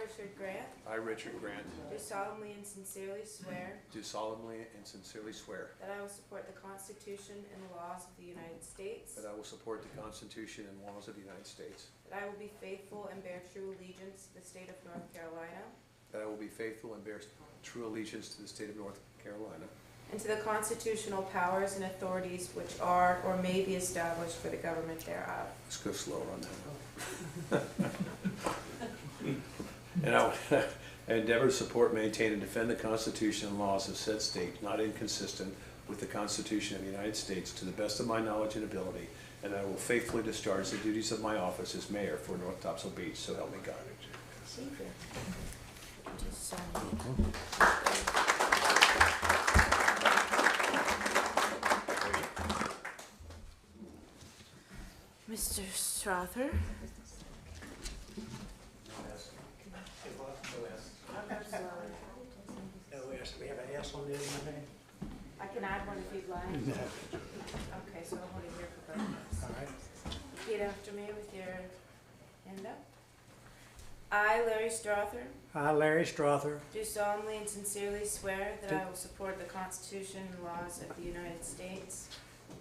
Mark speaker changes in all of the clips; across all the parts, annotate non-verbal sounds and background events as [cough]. Speaker 1: Richard Grant,
Speaker 2: I, Richard Grant,
Speaker 1: do solemnly and sincerely swear
Speaker 2: do solemnly and sincerely swear
Speaker 1: that I will support the Constitution and the laws of the United States,
Speaker 2: that I will support the Constitution and laws of the United States,
Speaker 1: that I will be faithful and bear true allegiance to the state of North Carolina,
Speaker 2: that I will be faithful and bear true allegiance to the state of North Carolina,
Speaker 1: and to the constitutional powers and authorities which are or may be established for the government thereof.
Speaker 2: Let's go slower on that. [laughs] And I will [laughs] endeavor to support, maintain, and defend the Constitution and laws of said state, not inconsistent with the Constitution of the United States, to the best of my knowledge and ability, and I will faithfully discharge the duties of my office as mayor for North Topsail Beach, so help me God.
Speaker 1: Just so- Mr. Strother?
Speaker 3: No, we have, we have an S on the end of the name,
Speaker 1: I can add one if you'd like. Okay, so I'm holding here for both of us.
Speaker 3: all right?
Speaker 1: Repeat after me with your hand up. I, Larry Strother,
Speaker 3: I, Larry Strother,
Speaker 1: do solemnly and sincerely swear that
Speaker 3: Do-
Speaker 1: I will support the Constitution and laws of the United States,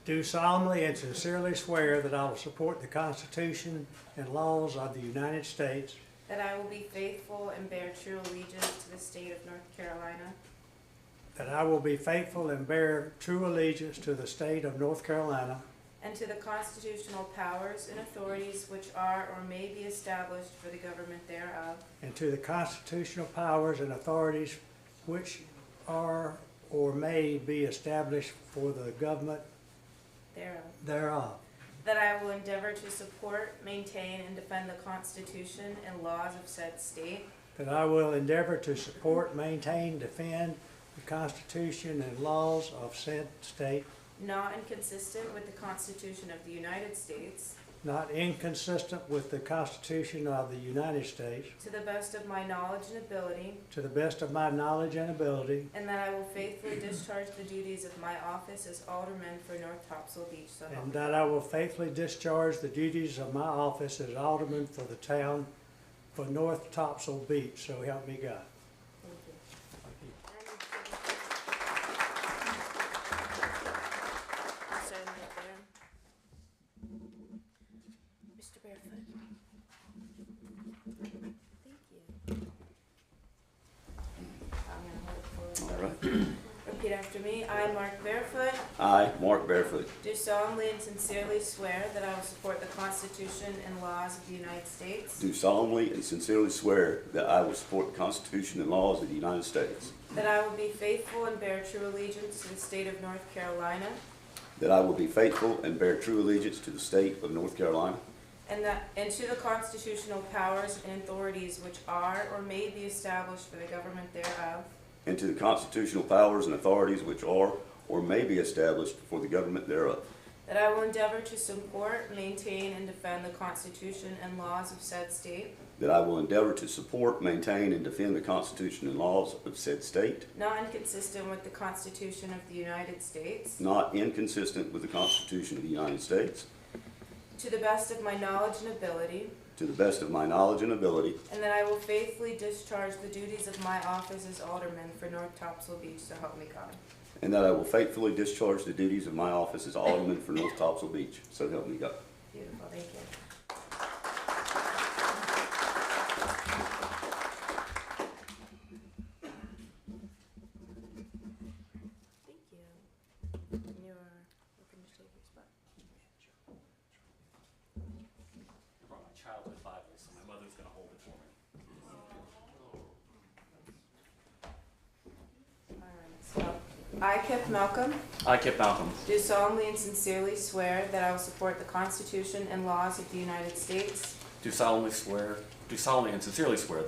Speaker 3: do solemnly and sincerely swear that I will support the Constitution and laws of the United States,
Speaker 1: that I will be faithful and bear true allegiance to the state of North Carolina,
Speaker 3: that I will be faithful and bear true allegiance to the state of North Carolina,
Speaker 1: and to the constitutional powers and authorities which are or may be established for the government thereof,
Speaker 3: and to the constitutional powers and authorities which are or may be established for the government
Speaker 1: thereof.
Speaker 3: thereof,
Speaker 1: That I will endeavor to support, maintain, and defend the Constitution and laws of said state,
Speaker 3: that I will endeavor to support, maintain, defend the Constitution and laws of said state,
Speaker 1: not inconsistent with the Constitution of the United States,
Speaker 3: not inconsistent with the Constitution of the United States,
Speaker 1: to the best of my knowledge and ability,
Speaker 3: to the best of my knowledge and ability,
Speaker 1: and that I will faithfully discharge the duties of my office as alderman for North Topsail Beach, so help
Speaker 3: and uh,
Speaker 1: me
Speaker 3: that I will faithfully discharge the duties of my office as alderman for the town for North Topsail Beach, so help me God.
Speaker 1: Mr. Barefoot. Thank you. I'm gonna
Speaker 4: All
Speaker 1: hold it
Speaker 4: right.
Speaker 1: for Repeat after me. I, Mark Barefoot,
Speaker 4: I, Mark Barefoot,
Speaker 1: do solemnly and sincerely swear that I will support the Constitution and laws of the United States,
Speaker 4: do solemnly and sincerely swear that I will support the Constitution and laws of the United States,
Speaker 1: that I will be faithful and bear true allegiance to the state of North Carolina,
Speaker 4: that I will be faithful and bear true allegiance to the state of North Carolina,
Speaker 1: And that, and to the constitutional powers and authorities which are or may be established for the government thereof,
Speaker 4: and to the constitutional powers and authorities which are or may be established for the government thereof,
Speaker 1: that I will endeavor to support, maintain, and defend the Constitution and laws of said state,
Speaker 4: that I will endeavor to support, maintain, and defend the Constitution and laws of said state,
Speaker 1: not inconsistent with the Constitution of the United States,
Speaker 4: not inconsistent with the Constitution of the United States,
Speaker 1: to the best of my knowledge and ability,
Speaker 4: to the best of my knowledge and ability,
Speaker 1: and that I will faithfully discharge the duties of my office as alderman for North Topsail Beach, so help me God.
Speaker 4: and that I will faithfully discharge the duties of my office as Alderman for North Topsail Beach, so help me God.
Speaker 1: Beautiful, thank you. Thank you. And you are welcome to take your spot.
Speaker 5: brought my childhood Bible, so my mother's gonna hold it for me.
Speaker 1: All right, so I, Kip Malcolm,
Speaker 5: I, Kip Malcolm,
Speaker 1: do solemnly and sincerely swear that I will support the Constitution and laws of the United States,
Speaker 5: do solemnly swear, do solemnly and sincerely swear that